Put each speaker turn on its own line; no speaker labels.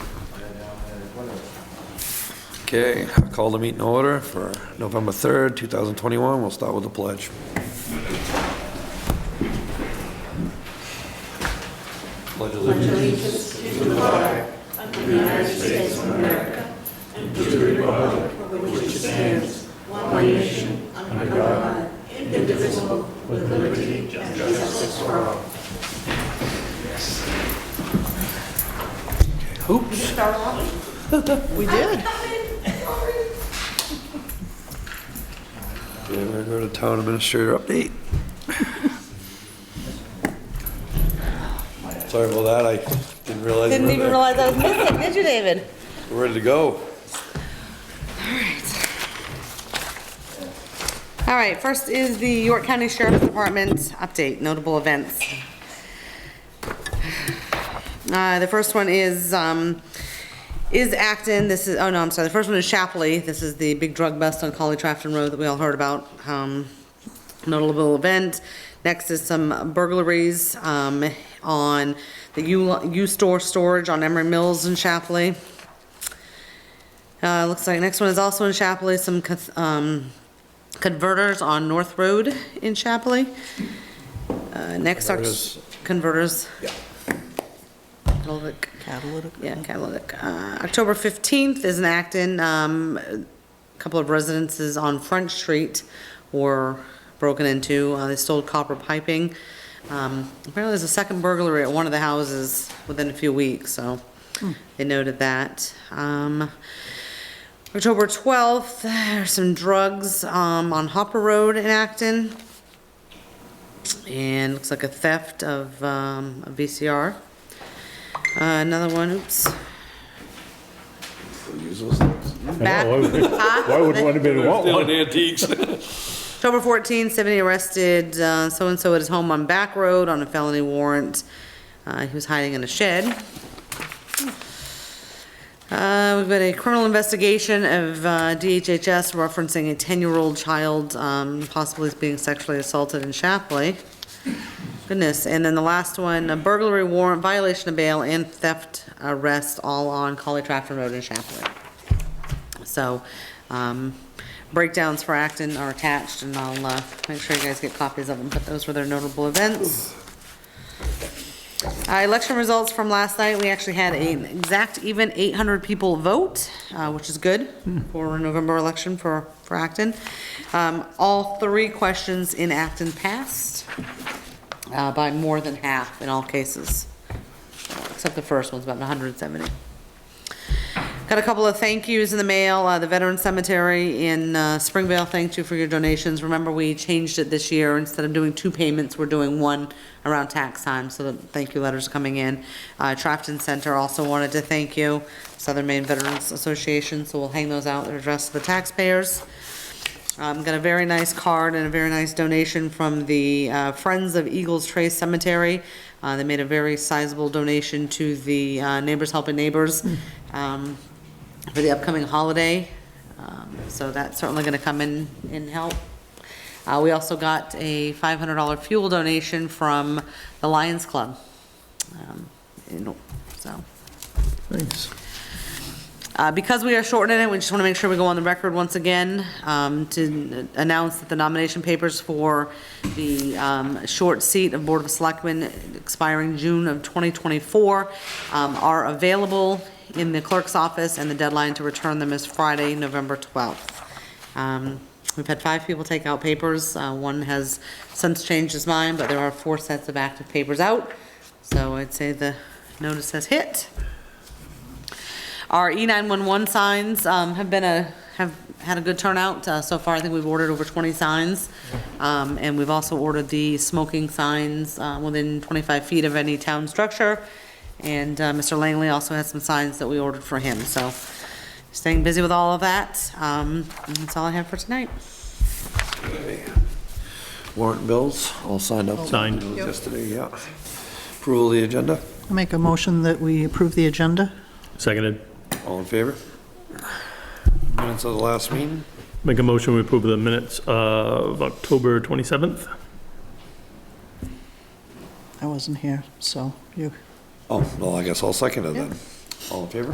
Okay, I call the meeting order for November 3rd, 2021. We'll start with the pledge. Pledge allegiance. Oops.
We did.
Yeah, we're gonna go to town administrator update. Sorry about that, I didn't realize.
Didn't
we're
even
there.
realize I was missing, did you, David?
We're ready to go.
All right, first is the York County Sheriff's Department update, notable events. Uh, the first one is, um, is Acton, this is, oh no, I'm sorry, the first one is Shapley. This is the big drug bust on Collie Trafton Road that we all heard about. Um, notable event. Next is some burglaries, um, on the U, U-Store storage on Emery Mills in Shapley. Uh, looks like next one is also in Chapley, some, cons- um, converters on North Road in Chapley. Uh, next are
Converters.
converters.
Yeah.
Catalytic. Catalytic. Yeah, catalytic. Uh, October 15th is in Acton. Um, A couple of residences on Front Street were broken into. Uh, They stole copper piping. Um, Apparently, there's a second burglary at one of the houses within a few weeks, so they noted that. Um, October 12th, there's some drugs um, on Hopper Road in Acton. And looks like a theft of um, a VCR. Uh, Another one, oops.
Use those things.
Back.
why Oh, would-
Huh?
Why would one have been, want
Stealing
one?
antiques.
October 14, 70 arrested uh, so-and-so at his home on Back Road on a felony warrant. Uh, He was hiding in a shed. Uh, We've got a criminal investigation of uh, DHHS referencing a 10-year-old child um, possibly being sexually assaulted in Shapley. Goodness, and then the last one, a burglary warrant, violation of bail, and theft arrest, all on Collie Trafford Road in Shapley. So, um, breakdowns for Acton are attached, and I'll, uh, make sure you guys get copies of them, but those were their notable events. Uh, election results from last night, we actually had an exact even eight hundred people vote, uh, which is good for a November election for, for Acton. Um, all three questions in Acton passed, uh, by more than half in all cases. Except the first one's about hundred and seventy. Got a couple of thank yous in the mail. Uh, The Veteran Cemetery in uh, Springvale, thanked you for your donations. Remember, we changed it this year. Instead of doing two payments, we're doing one around tax time, so the thank you letters are coming in. Uh, Trafton Center also wanted to thank you, Southern Maine Veterans Association, so we'll hang those out. They're addressed to the taxpayers. Um, got a very nice card and a very nice donation from the uh, Friends of Eagles Trace Cemetery. Uh, they made a very sizable donation to the uh, Neighbors Helping Neighbors um, for the upcoming holiday. Um, so that's certainly going to come in and help. Uh, we also got a $500 fuel donation from the Lions Club. Um, in- so.
Thanks.
Uh, Because we are shortening it, we just want to make sure we go on the record once again um, to announce that the nomination papers for the um, short seat of Board of Selectmen expiring June of 2024 um, are available in the clerk's office, and the deadline to return them is Friday, November 12th. Um, We've had five people take out papers. Uh, One has since changed his mind, but there are four sets of active papers out, so I'd say the notice has hit. Our E E911 signs um, have been a, have had a good turnout uh, so far. I think we've ordered over 20 signs. Um, And we've also ordered the smoking signs uh, within 25 feet of any town structure. And uh, Mr. Langley also has some signs that we ordered for him, so staying busy with all of that. Um, and That's all I have for tonight.
Warrant bills, all signed up.
Signed.
Yesterday, yeah. Approval of the agenda,
Make a motion that we approve the agenda.
Seconded.
all in favor? Minutes of the last meeting,
Make a motion, we approve the minutes of October 27th.
I wasn't here, so you
oh, well, I guess I'll second it then. All in favor?